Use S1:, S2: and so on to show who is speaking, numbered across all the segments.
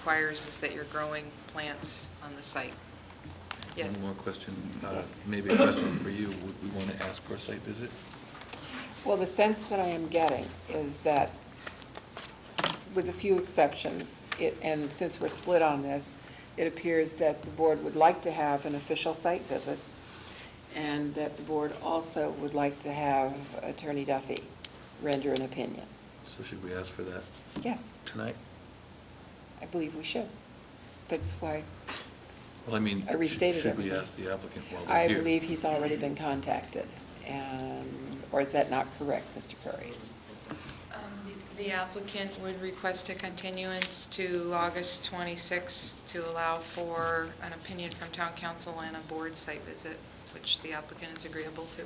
S1: requires is that you're growing plants on the site. Yes.
S2: One more question, uh, maybe a question for you. Would we want to ask for a site visit?
S3: Well, the sense that I am getting is that, with a few exceptions, it, and since we're split on this, it appears that the board would like to have an official site visit, and that the board also would like to have Attorney Duffy render an opinion.
S2: So should we ask for that
S3: Yes,
S2: tonight?
S3: I believe we should. That's why
S2: Well, I mean,
S3: I
S2: sh-
S3: restated
S2: should we
S3: everything.
S2: ask the applicant while they're
S3: I
S2: here?
S3: believe he's already been contacted, and, or is that not correct, Mr. Curry?
S1: Um, the- The applicant would request a continuance to August 26 to allow for an opinion from town council and a board site visit, which the applicant is agreeable to.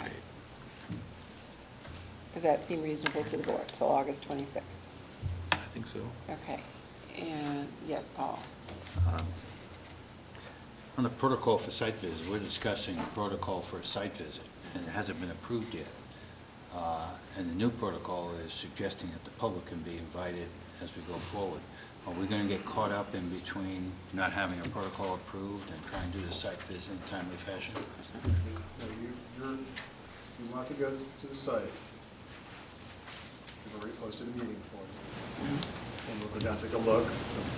S2: Okay.
S3: Does that seem reasonable to the board, till August 26th?
S2: I think so.
S3: Okay, and, yes, Paul?
S4: Um, On the protocol for site visit, we're discussing a protocol for a site visit, and it hasn't been approved yet. Uh, And the new protocol is suggesting that the public can be invited as we go forward. Are we going to get caught up in between not having a protocol approved and trying to do the site visit in a timely fashion?
S5: No, you, you're, you want to go to the site. We've already posted a meeting for you. And we'll go down, take a look. The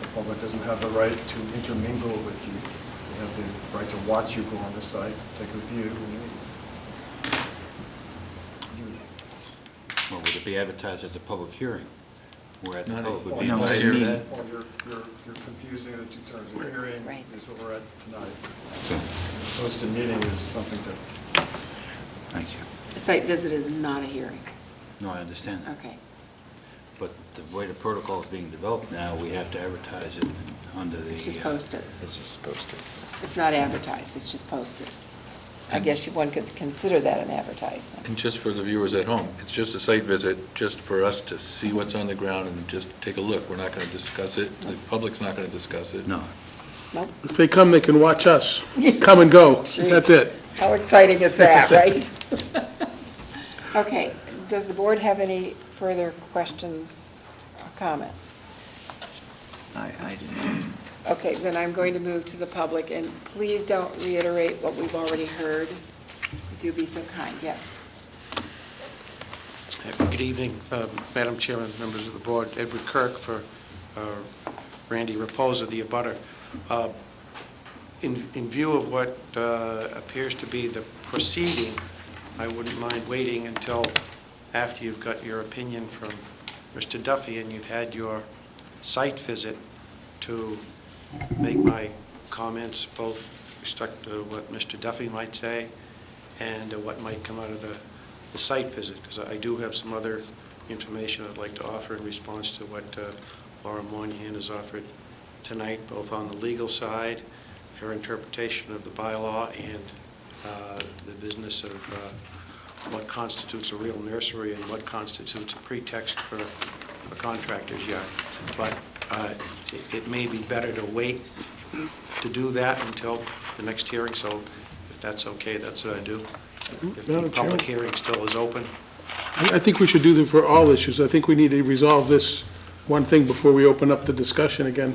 S5: the public doesn't have the right to intermingle with you. They have the right to watch you go on the site, take a view, and you.
S4: Or would it be advertised as a public hearing? Where the
S2: Not a-
S4: public would
S5: Well,
S4: be
S2: No,
S5: you're-
S2: it's a
S4: invited?
S2: meeting.
S5: Well, you're, you're, you're confusing the two terms. A hearing
S3: Right.
S5: is what we're at tonight. Posted meeting is something different.
S4: Thank you.
S3: A site visit is not a hearing.
S4: No, I understand that.
S3: Okay,
S4: But the way the protocol is being developed now, we have to advertise it under the...
S3: it's just
S4: uh,
S3: posted.
S4: It's just posted.
S3: It's not advertised, it's just posted. I guess you- one could consider that an advertisement.
S2: And just for the viewers at home, it's just a site visit, just for us to see what's on the ground and just take a look. We're not going to discuss it, the public's not going to discuss it.
S4: No,
S3: Nope.
S6: If they come, they can watch us. Come and go. That's it.
S3: How exciting is that, right? Okay, does the board have any further questions or comments?
S7: I, I didn't.
S3: Okay, then I'm going to move to the public, and please don't reiterate what we've already heard, if you'll be so kind, yes.
S8: Good evening, uh, Madam Chairman, members of the board. Edward Kirk for uh, Randy Reposa, the abutter. Uh, In in view of what uh, appears to be the proceeding, I wouldn't mind waiting until after you've got your opinion from Mr. Duffy and you've had your site visit to make my comments, both with respect to what Mr. Duffy might say and uh, what might come out of the the site visit, because I do have some other information I'd like to offer in response to what uh, Laura Moynihan has offered tonight, both on the legal side, her interpretation of the bylaw, and uh, the business of uh, what constitutes a real nursery and what constitutes a pretext for a contractor's yard. But uh, it- it may be better to wait to do that until the next hearing, so if that's okay, that's what I do. If the
S6: Mm-hmm. Madam
S8: public
S6: Chair.
S8: hearing still is open,
S6: I I think we should do that for all issues. I think we need to resolve this one thing before we open up the discussion again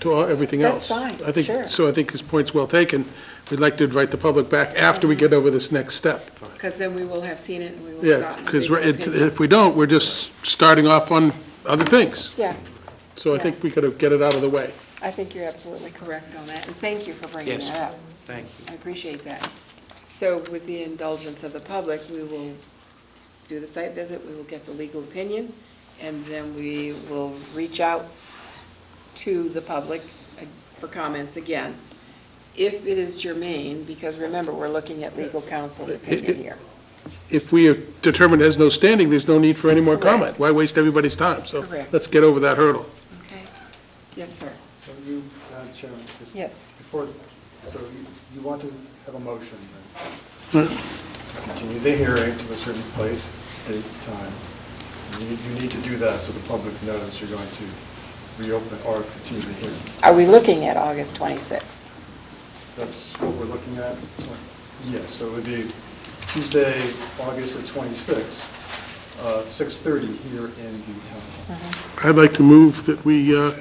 S6: to all- everything
S3: That's
S6: else.
S3: fine,
S6: I think-
S3: sure.
S6: So I think his point's well taken. We'd like to invite the public back after we get over this next step.
S3: Because then we will have seen it, and we will have
S6: Yeah,
S3: gotten a
S6: because
S3: legal opinion.
S6: if we don't, we're just starting off on other things.
S3: Yeah,
S6: So I think we gotta get it out of the way.
S3: I think you're absolutely correct on that, and thank you for bringing
S8: Yes.
S3: that up.
S8: thank you.
S3: I appreciate that. So with the indulgence of the public, we will do the site visit, we will get the legal opinion, and then we will reach out to the public uh, for comments again, if it is germane, because remember, we're looking at legal counsel's opinion here.
S6: If we have determined it has no standing, there's no need for any more
S3: Correct.
S6: comment. Why waste everybody's time? So
S3: Correct.
S6: let's get over that hurdle.
S3: Okay. Yes, sir.
S5: So you, Madam Chairman, just.
S3: Yes.
S5: Before, so you, you want to have a motion then? Continue the hearing to a certain place, date, time. You need, you need to do that so the public knows you're going to reopen or continue the hearing.
S3: Are we looking at August 26th?
S5: That's what we're looking at. Yes, so it would be Tuesday, August the twenty-sixth, uh, six-thirty here in the town hall.
S6: I'd like to move that we uh,